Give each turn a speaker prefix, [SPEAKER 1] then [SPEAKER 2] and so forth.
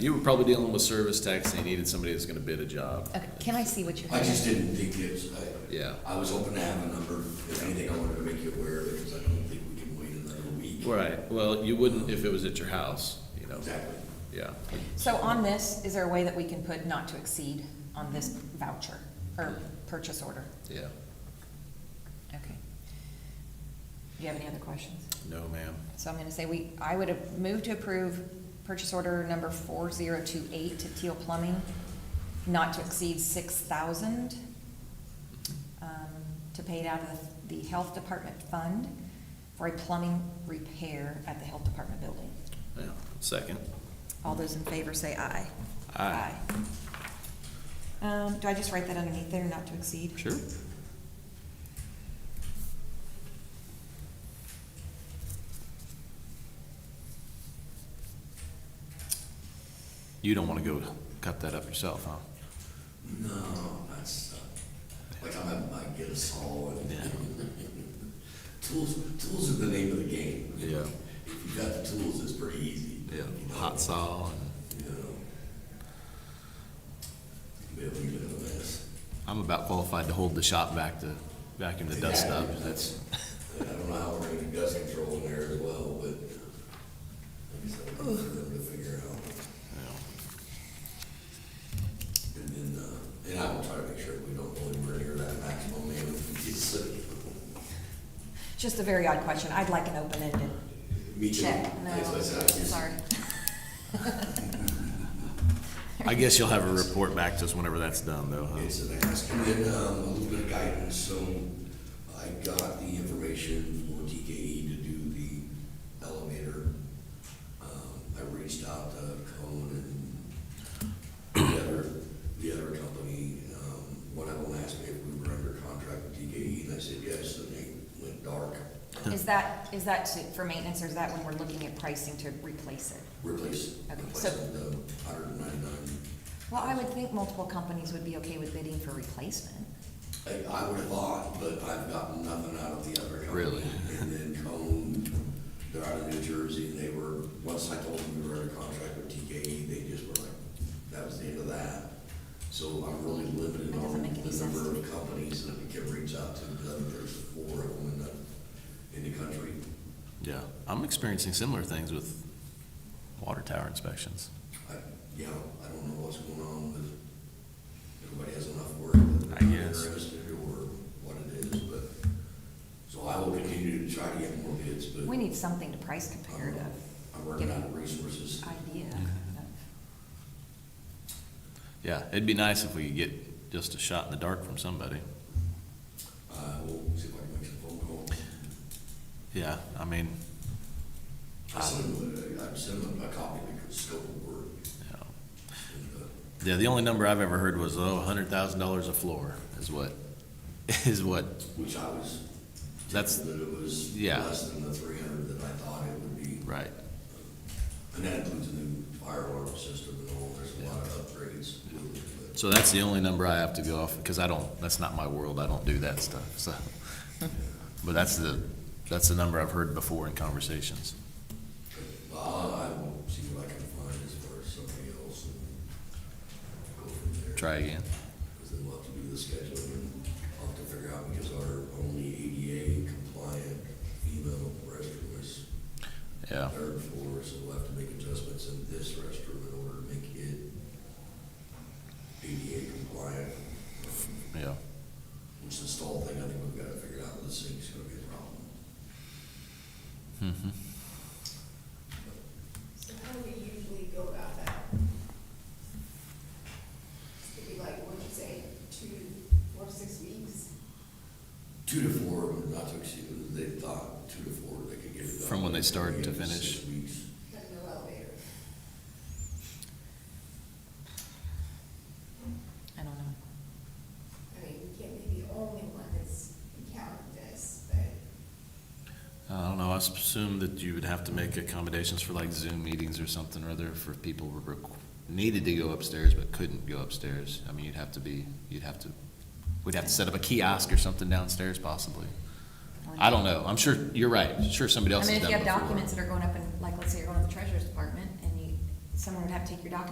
[SPEAKER 1] You were probably dealing with service tax and you needed somebody that's gonna bid a job.
[SPEAKER 2] Okay, can I see what you
[SPEAKER 3] I
[SPEAKER 2] have?
[SPEAKER 3] just didn't think it's, I,
[SPEAKER 1] Yeah.
[SPEAKER 3] I was hoping to have a number, if anything, I wanted to make you aware of it, because I don't think we can wait another week.
[SPEAKER 1] Right, well, you wouldn't if it was at your house, you know,
[SPEAKER 3] Exactly.
[SPEAKER 1] yeah.
[SPEAKER 2] So on this, is there a way that we can put not to exceed on this voucher or purchase order?
[SPEAKER 1] Yeah,
[SPEAKER 2] Okay. Do you have any other questions?
[SPEAKER 1] no, ma'am.
[SPEAKER 2] So I'm gonna say we, I would have moved to approve purchase order number four zero two eight to Teal Plumbing, not to exceed six thousand, um, to pay it out of the Health Department Fund for a plumbing repair at the Health Department building.
[SPEAKER 1] Yeah, second.
[SPEAKER 2] All those in favor say aye.
[SPEAKER 1] Aye.
[SPEAKER 2] Aye. Um, do I just write that underneath there, not to exceed?
[SPEAKER 1] Sure. You don't wanna go cut that up yourself, huh?
[SPEAKER 3] No, that's, uh, like I might- might get a saw and. Tools, tools are the name of the game.
[SPEAKER 1] Yeah.
[SPEAKER 3] If you've got the tools, it's pretty easy. you know?
[SPEAKER 1] Hot saw and.
[SPEAKER 3] You know. Be a little bit of a mess.
[SPEAKER 1] I'm about qualified to hold the shop back to vacuum the dust up. That's,
[SPEAKER 3] And I don't know how we're gonna do dust control in there as well, but. I guess I'll have to figure out.
[SPEAKER 1] you know,
[SPEAKER 3] And then, uh, and I will try to make sure we don't go anywhere near that maximum man uh, if we get sick.
[SPEAKER 2] Just a very odd question. I'd like an open-ended
[SPEAKER 3] Me too.
[SPEAKER 2] check.
[SPEAKER 3] Yes,
[SPEAKER 2] No,
[SPEAKER 3] that's how it is.
[SPEAKER 2] sorry.
[SPEAKER 1] I guess you'll have a report back to us whenever that's done, though. huh?
[SPEAKER 3] It's an ask. And then, um, a little bit of guidance, so I got the information for TKE to do the elevator. Um, I reached out to Cone and the other, the other company. Um, One of them asked me if we were under contract with TKE, and I said yes, and they went dark,
[SPEAKER 2] Is that, is that to- for maintenance, or is that when we're looking at pricing to replace it?
[SPEAKER 3] replace,
[SPEAKER 2] Okay,
[SPEAKER 3] replace
[SPEAKER 2] so-
[SPEAKER 3] the hundred and ninety-nine
[SPEAKER 2] Well, I would think multiple companies would be okay with bidding for replacement.
[SPEAKER 3] I, I would have thought, but I've gotten nothing out of the other company.
[SPEAKER 1] Really?
[SPEAKER 3] And then Cone, they're out of New Jersey, and they were, once I told them we were under contract with TKE, they just were like, that was the end of that. So I'm really limited
[SPEAKER 2] That doesn't
[SPEAKER 3] on
[SPEAKER 2] make any
[SPEAKER 3] the
[SPEAKER 2] sense to
[SPEAKER 3] number
[SPEAKER 2] me.
[SPEAKER 3] of companies that we can reach out to, because I think there's four of them in the, in the country.
[SPEAKER 1] Yeah, I'm experiencing similar things with water tower inspections.
[SPEAKER 3] I, you know, I don't know what's going on with, everybody has enough work that
[SPEAKER 1] I
[SPEAKER 3] they're not
[SPEAKER 1] guess.
[SPEAKER 3] interested or what it is, but, so I will continue to try to get more bids, but.
[SPEAKER 2] We need something to price compare to
[SPEAKER 3] Um, I'm working on resources.
[SPEAKER 2] idea.
[SPEAKER 1] Yeah, it'd be nice if we could get just a shot in the dark from somebody.
[SPEAKER 3] Uh, we'll see if I can make some phone calls.
[SPEAKER 1] Yeah, I mean,
[SPEAKER 3] I sent them, uh, I sent them a copy of the scope of work.
[SPEAKER 1] you know.
[SPEAKER 3] and, uh,
[SPEAKER 1] yeah, the only number I've ever heard was, oh, a hundred thousand dollars a floor is what, is what,
[SPEAKER 3] Which I was.
[SPEAKER 1] That's-
[SPEAKER 3] That it was
[SPEAKER 1] yeah.
[SPEAKER 3] less than the three hundred that I thought it would be.
[SPEAKER 1] right.
[SPEAKER 3] And that includes a new fire alarm system and all, there's a lot of upgrades. but-
[SPEAKER 1] So that's the only number I have to go off, because I don't, that's not my world, I don't do that stuff, so. But that's the, that's the number I've heard before in conversations.
[SPEAKER 3] Well, uh, I will see what I can find as far as somebody else and go from there.
[SPEAKER 1] Try again.
[SPEAKER 3] Because then we'll have to do the scheduling and I'll have to figure out because our only ADA compliant female restroom is
[SPEAKER 1] Yeah,
[SPEAKER 3] third floor, so we'll have to make adjustments in this restroom in order to make it ADA compliant.
[SPEAKER 1] yeah.
[SPEAKER 3] Which the stall thing, I think we've got to figure out, this thing's gonna be a problem.
[SPEAKER 1] Mhm.
[SPEAKER 4] So how do we usually go about that? It'd be like, what'd you say, two or six weeks?
[SPEAKER 3] Two to four, not to exceed, they thought two to four, they could get it done.
[SPEAKER 1] From when they start to
[SPEAKER 3] Maybe six
[SPEAKER 1] finish.
[SPEAKER 3] weeks.
[SPEAKER 4] Have no elevator.
[SPEAKER 2] I don't know.
[SPEAKER 4] I mean, we can't be the only one that's encountered this, but
[SPEAKER 1] I don't know, I assume that you would have to make accommodations for like Zoom meetings or something or other for people who requ- needed to go upstairs but couldn't go upstairs. I mean, you'd have to be, you'd have to, we'd have to set up a kiosk or something downstairs possibly. I don't know, I'm sure, you're right, sure somebody
[SPEAKER 2] I
[SPEAKER 1] else
[SPEAKER 2] mean,
[SPEAKER 1] has
[SPEAKER 2] if
[SPEAKER 1] done it
[SPEAKER 2] you have
[SPEAKER 1] before.
[SPEAKER 2] documents that are going up in, like, let's say you're going to the treasurer's department and you, someone would have to take your documents